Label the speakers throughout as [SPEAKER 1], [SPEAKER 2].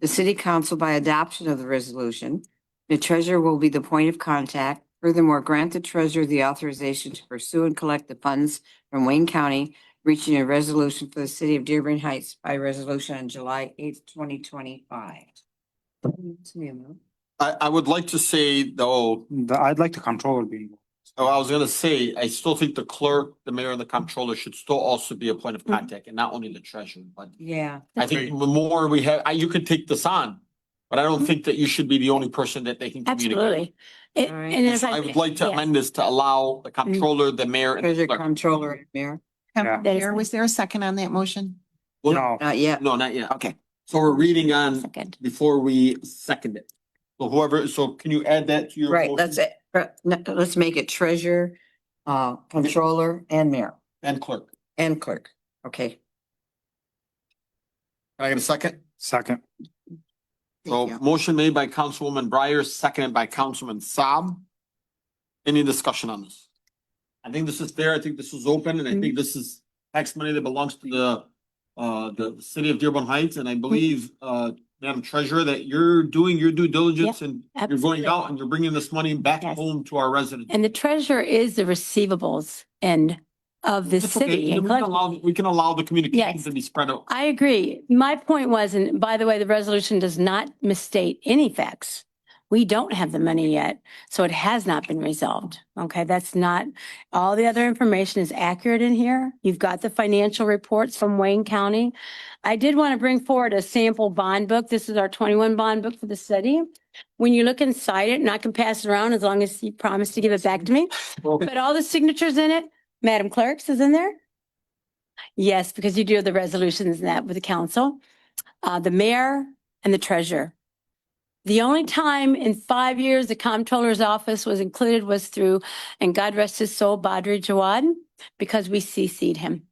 [SPEAKER 1] the city council by adoption of the resolution. The treasurer will be the point of contact. Furthermore, grant the treasurer the authorization to pursue and collect the funds from Wayne County, reaching a resolution for the city of Dearborn Heights by resolution on July eighth, twenty twenty-five.
[SPEAKER 2] I, I would like to say though,
[SPEAKER 3] The- I'd like the controller being.
[SPEAKER 2] oh, I was gonna say, I still think the clerk, the mayor and the comptroller should still also be a point of
[SPEAKER 4] Mm-hmm.
[SPEAKER 1] Mhm.
[SPEAKER 2] contact and not only the treasurer, but
[SPEAKER 1] Yeah,
[SPEAKER 2] I think the more we have, I, you could take this on. But I don't
[SPEAKER 4] Mhm.
[SPEAKER 2] think that you should be the only person that they can communicate.
[SPEAKER 4] Absolutely. It-
[SPEAKER 1] All right.
[SPEAKER 4] And as I.
[SPEAKER 2] I would like to
[SPEAKER 4] yeah. Mm-hmm.
[SPEAKER 2] amend this to allow the comptroller, the mayor and the
[SPEAKER 1] treasurer,
[SPEAKER 2] clerk.
[SPEAKER 1] comptroller, mayor,
[SPEAKER 3] Yeah.
[SPEAKER 5] Com-
[SPEAKER 4] That is
[SPEAKER 5] Mayor,
[SPEAKER 4] fine.
[SPEAKER 5] was there a second on that motion?
[SPEAKER 2] Well,
[SPEAKER 3] No,
[SPEAKER 1] not yet.
[SPEAKER 2] No, not yet.
[SPEAKER 5] Okay.
[SPEAKER 2] So we're reading on
[SPEAKER 4] Second.
[SPEAKER 2] before we second it. So whoever, so can you add that to your?
[SPEAKER 1] Right,
[SPEAKER 2] motion?
[SPEAKER 1] let's, uh, no, let's make it treasurer, uh, controller and mayor
[SPEAKER 2] And clerk.
[SPEAKER 1] and clerk. Okay.
[SPEAKER 2] Can I get a second?
[SPEAKER 3] second,
[SPEAKER 2] So
[SPEAKER 5] Thank you.
[SPEAKER 2] motion made by Councilwoman Breyer, seconded by Councilman Saab. Any discussion on this? I think this is fair. I think this is open and I think this is tax money that belongs to the uh, the city of Dearborn Heights and I believe uh, Madam Treasurer, that you're doing your due diligence and you're going
[SPEAKER 4] absolutely.
[SPEAKER 2] out and you're bringing this money back
[SPEAKER 4] Yes.
[SPEAKER 2] home to our residents.
[SPEAKER 4] And the treasurer is the receivables end of the
[SPEAKER 2] It's okay.
[SPEAKER 4] city. and
[SPEAKER 2] We can allow,
[SPEAKER 4] collecting.
[SPEAKER 2] we can allow the communication
[SPEAKER 4] Yes.
[SPEAKER 2] to be spread out.
[SPEAKER 4] I agree. My point was, and by the way, the resolution does not misstate any facts. We don't have the money yet, so it has not been resolved. Okay, that's not, all the other information is accurate in here. You've got the financial reports from Wayne County. I did want to bring forward a sample bond book. This is our twenty-one bond book for the city. When you look inside it, and I can pass it around as long as you promise to give it back to me, but all the signatures in it, Madam Clerk's is in there. Yes, because you do the resolutions and that with the council, uh, the mayor and the treasurer. The only time in five years the comptroller's office was included was through, and God rest his soul, Badri Jawad, because we CC'd him.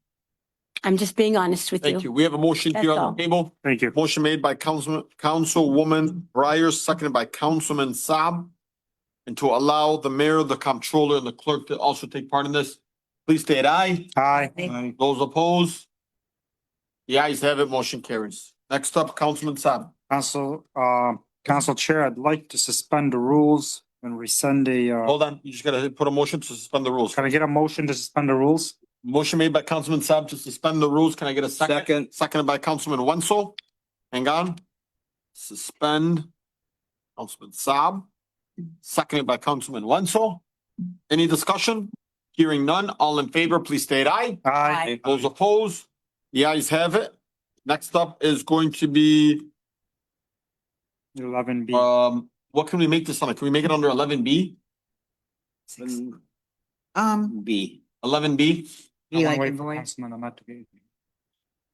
[SPEAKER 4] I'm just being honest with
[SPEAKER 2] Thank you.
[SPEAKER 4] you.
[SPEAKER 2] We have a motion here on
[SPEAKER 4] That's all.
[SPEAKER 2] the table.
[SPEAKER 3] thank you.
[SPEAKER 2] Motion made by Councilman, Councilwoman Breyer, seconded by Councilman Saab. And to allow the mayor, the comptroller, and the clerk to also take part in this, please state aye.
[SPEAKER 3] Aye.
[SPEAKER 1] Aye.
[SPEAKER 2] Those opposed? The ayes have it, motion carries. Next up, Councilman Saab.
[SPEAKER 3] Council, uh, Council Chair, I'd like to suspend the rules and rescind the, uh,
[SPEAKER 2] Hold on, you just gotta put a motion to suspend the rules.
[SPEAKER 3] can I get a motion to suspend the rules?
[SPEAKER 2] Motion made by Councilman Saab to suspend the rules. Can I get a second?
[SPEAKER 6] Second.
[SPEAKER 2] Seconded by Councilman Wenzel. Hang on. Suspend. Councilman Saab. Seconded by Councilman Wenzel. Any discussion? Hearing none. All in favor, please state aye.
[SPEAKER 3] Aye.
[SPEAKER 2] Those opposed? The ayes have it. Next up is going to be,
[SPEAKER 3] Eleven B.
[SPEAKER 2] um, what can we make this on? Can we make it under eleven B?
[SPEAKER 5] Six. Um,
[SPEAKER 6] B.
[SPEAKER 2] Eleven B?
[SPEAKER 1] Be like in voice.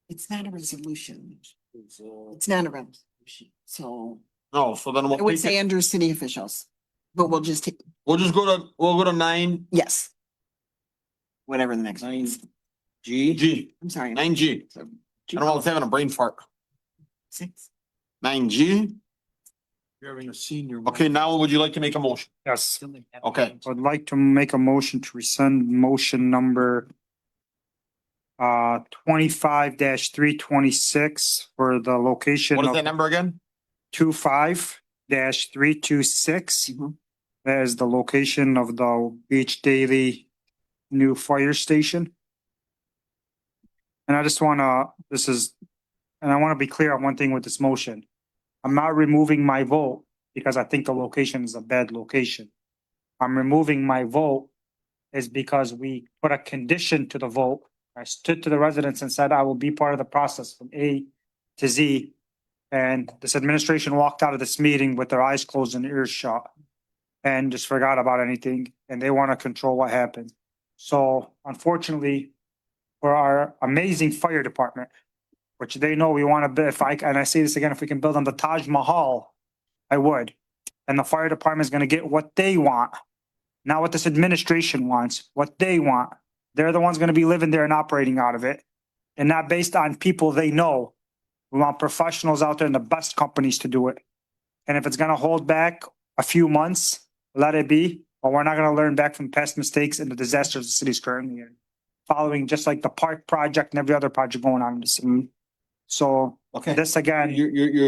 [SPEAKER 5] it's not a resolution. It's not a resolution, so
[SPEAKER 2] No, so then
[SPEAKER 5] I
[SPEAKER 2] we'll
[SPEAKER 5] would
[SPEAKER 2] take
[SPEAKER 5] say
[SPEAKER 2] it.
[SPEAKER 5] under city officials. But we'll just take,
[SPEAKER 2] We'll just go to, we'll go to nine
[SPEAKER 5] yes. Whatever the next one
[SPEAKER 6] Nine
[SPEAKER 5] is.
[SPEAKER 6] G.
[SPEAKER 2] G,
[SPEAKER 5] I'm sorry.
[SPEAKER 2] nine G. I don't know, I was having a brain fart.
[SPEAKER 5] Six.
[SPEAKER 2] Nine G.
[SPEAKER 6] You're having a senior.
[SPEAKER 2] Okay, now would you like to make a motion?
[SPEAKER 3] Yes,
[SPEAKER 2] Okay.
[SPEAKER 3] I'd like to make a motion to rescind motion number uh, twenty-five three twenty-six for the location
[SPEAKER 2] What is
[SPEAKER 3] of-
[SPEAKER 2] that number again?
[SPEAKER 3] two five dash three two six.
[SPEAKER 5] Mhm.
[SPEAKER 3] That is the location of the Beach Daily new fire station. And I just wanna, this is, and I wanna be clear on one thing with this motion. I'm not removing my vote because I think the location is a bad location. I'm removing my vote is because we put a condition to the vote. I stood to the residents and said I will be part of the process from A to Z and this administration walked out of this meeting with their eyes closed and ears shut and just forgot about anything, and they want to control what happened. So unfortunately, for our amazing fire department, which they know we want to, if I, and I say this again, if we can build on the Taj Mahal, I would. And the fire department is going to get what they want, not what this administration wants, what they want. They're the ones going to be living there and operating out of it, and not based on people they know. We want professionals out there and the best companies to do it. And if it's gonna hold back a few months, let it be, but we're not gonna learn back from past mistakes and the disasters the city's currently in. Following just like the park project and every other project going on in the city. So
[SPEAKER 2] Okay.
[SPEAKER 3] this again.
[SPEAKER 2] You're, you're, you're